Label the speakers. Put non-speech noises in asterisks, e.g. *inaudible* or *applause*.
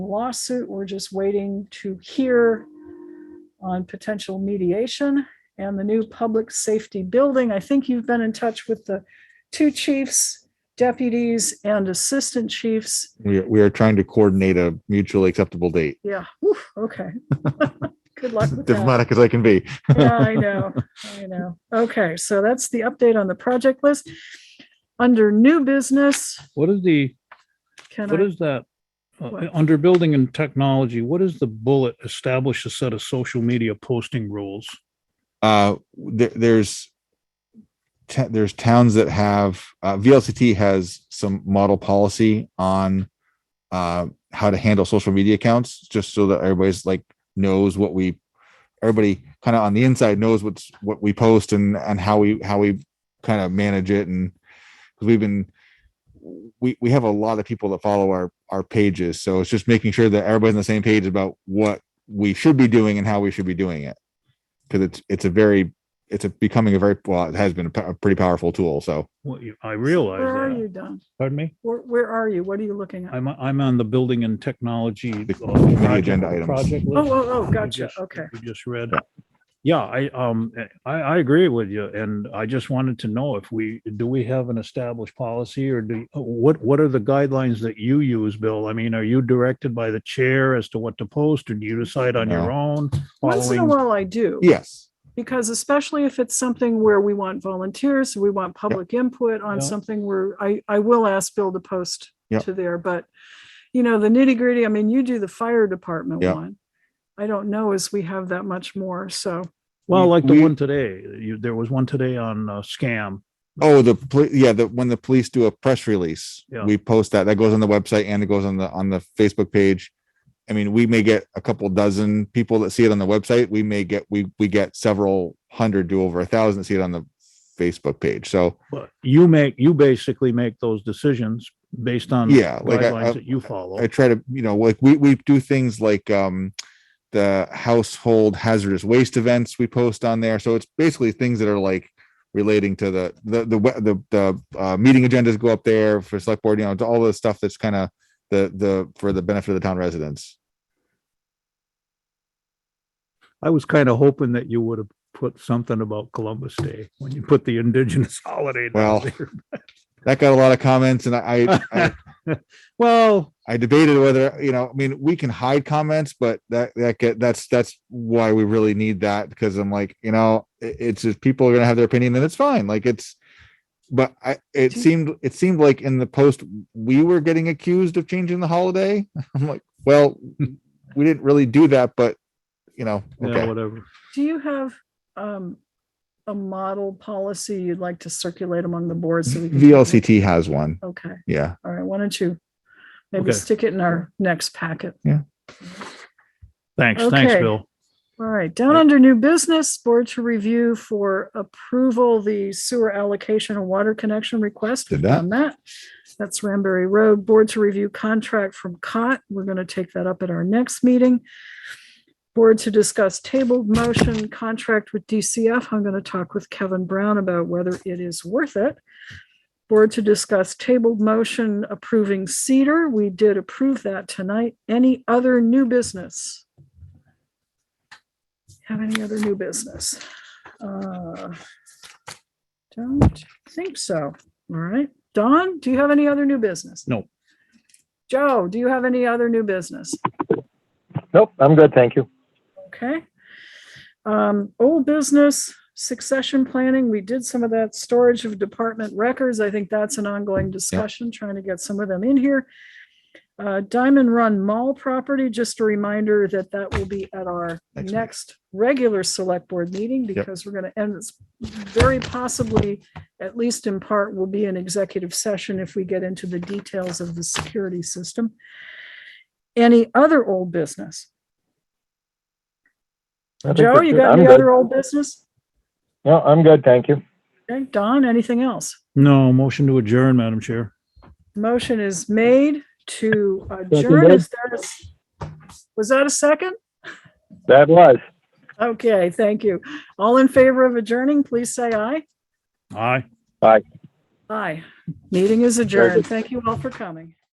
Speaker 1: lawsuit. We're just waiting to hear on potential mediation and the new public safety building. I think you've been in touch with the two chiefs, deputies, and assistant chiefs.
Speaker 2: We, we are trying to coordinate a mutually acceptable date,
Speaker 1: Yeah, whew, okay. Good luck with that.
Speaker 2: diplomatic as I can be.
Speaker 1: Yeah, I know, I know. Okay, so that's the update on the project list. Under new business,
Speaker 3: What is the,
Speaker 1: can
Speaker 3: what
Speaker 1: I,
Speaker 3: is that? uh,
Speaker 1: What?
Speaker 3: Under building and technology, what is the bullet establish a set of social media posting rules?
Speaker 2: Uh, there, there's ta- there's towns that have uh, VLCT has some model policy on uh, how to handle social media accounts, just so that everybody's like knows what we everybody kind of on the inside knows what's what we post and and how we how we kind of manage it and because we've been we we have a lot of people that follow our our pages so it's just making sure that everybody's on the same page about what we should be doing and how we should be doing it because it's it's a very it's a becoming a very well it has been a, p- a pretty powerful tool so
Speaker 3: What you, I
Speaker 1: where are
Speaker 3: realize that.
Speaker 1: you, Don?
Speaker 3: Pardon me?
Speaker 1: Where, where are you? What are you looking at?
Speaker 3: I'm, I'm on the building and technology. uh,
Speaker 2: community
Speaker 3: project-
Speaker 2: agenda items.
Speaker 3: project
Speaker 1: Oh,
Speaker 3: list.
Speaker 1: oh, oh,
Speaker 3: we
Speaker 1: gotcha,
Speaker 3: just-
Speaker 1: okay.
Speaker 3: We just read. Yeah, I, um, I, I agree with you. And I just wanted to know if we, do we have an established policy or do, what, what are the guidelines that you use, Bill? I mean, are you directed by the chair as to what to post or do you decide on your own?
Speaker 1: Once in a
Speaker 3: following-
Speaker 1: while I do.
Speaker 2: yes
Speaker 1: Because especially if it's something where we want volunteers, we want public input on
Speaker 3: Yeah.
Speaker 1: something where I, I will ask Bill to post
Speaker 2: Yeah.
Speaker 1: to there, but you know, the nitty gritty, I mean, you do the fire department
Speaker 2: Yeah.
Speaker 1: one. I don't know as we have that much more, so,
Speaker 3: Well,
Speaker 2: We-
Speaker 3: like the
Speaker 2: we-
Speaker 3: one today, you, there was one today on uh, scam.
Speaker 2: oh the poli- yeah the when the police do a press release
Speaker 3: Yeah.
Speaker 2: we post that that goes on the website and it goes on the on the facebook page i mean we may get a couple dozen people that see it on the website we may get we we get several hundred to over a thousand that see it on the facebook page so
Speaker 3: But you make, you basically make those decisions based on
Speaker 2: Yeah, like I- I-
Speaker 3: guidelines that you follow.
Speaker 2: I try to, you know, like we we do things like um the household hazardous waste events we post on there. So it's basically things that are like relating to the the the we- the, the uh, meeting agendas go up there for select board, you know, to all the stuff that's kind of the the for the benefit of the town residents.
Speaker 3: I was kind of hoping that you would have put something about Columbus Day when you put the indigenous *laughs* holiday. down
Speaker 2: Well-
Speaker 3: there.
Speaker 2: That got a lot of comments, and I I, I
Speaker 3: *laughs* Well,
Speaker 2: I debated whether you know, I mean, we can hide comments, but that that get that's that's why we really need that because I'm like, you know, it- it's just people are gonna have their opinion and it's fine. Like it's, but I it
Speaker 1: Do-
Speaker 2: seemed it seemed like in the post we were getting accused of changing the holiday. *laughs* I'm like, well, we didn't really do that, but you know,
Speaker 3: yeah,
Speaker 2: okay,
Speaker 3: whatever.
Speaker 1: do you have, um, a model policy you'd like to circulate among the boards? so we can-
Speaker 2: VLCT has one,
Speaker 1: Okay,
Speaker 2: yeah.
Speaker 1: all right, why don't you maybe
Speaker 3: Okay.
Speaker 1: stick it in our next packet?
Speaker 3: Thanks, thanks,
Speaker 1: Okay.
Speaker 3: Bill.
Speaker 1: All right, down under new business, board to review for approval, the sewer allocation and water connection request. We've
Speaker 2: Did that.
Speaker 1: done that. That's Ranberry Road, board to review contract from COT. We're going to take that up at our next meeting. Board to discuss tabled motion contract with DCF. I'm going to talk with Kevin Brown about whether it is worth it. Board to discuss tabled motion approving Cedar. We did approve that tonight. Any other new business? have any other new business? Uh, Don't think so. All right. Don, do you have any other new business?
Speaker 3: No.
Speaker 1: Joe, do you have any other new business?
Speaker 4: Nope, I'm good, thank you.
Speaker 1: Okay. Um, old business, succession planning, we did some of that storage of department records. I think that's an ongoing discussion, trying to get some of them in here. Uh, Diamond Run Mall property, just a reminder that that will be at our
Speaker 2: Next week.
Speaker 1: next regular select board meeting because we're gonna, and it's very possibly, at least in part, will be an executive session if we get into the details of the security system. Any other old business?
Speaker 4: I think
Speaker 1: Joe,
Speaker 4: that's
Speaker 1: you
Speaker 4: it.
Speaker 1: got
Speaker 4: I'm
Speaker 1: any
Speaker 4: good.
Speaker 1: other old business?
Speaker 4: No, I'm good, thank you.
Speaker 1: Okay, Don, anything else?
Speaker 3: No, motion to adjourn, Madam Chair.
Speaker 1: Motion is made to adjourn. Is there a s- Was that a second?
Speaker 4: That was.
Speaker 1: Okay, thank you. All in favor of adjourning, please say aye.
Speaker 3: Aye.
Speaker 1: Aye. Meeting is adjourned. Thank you all for coming.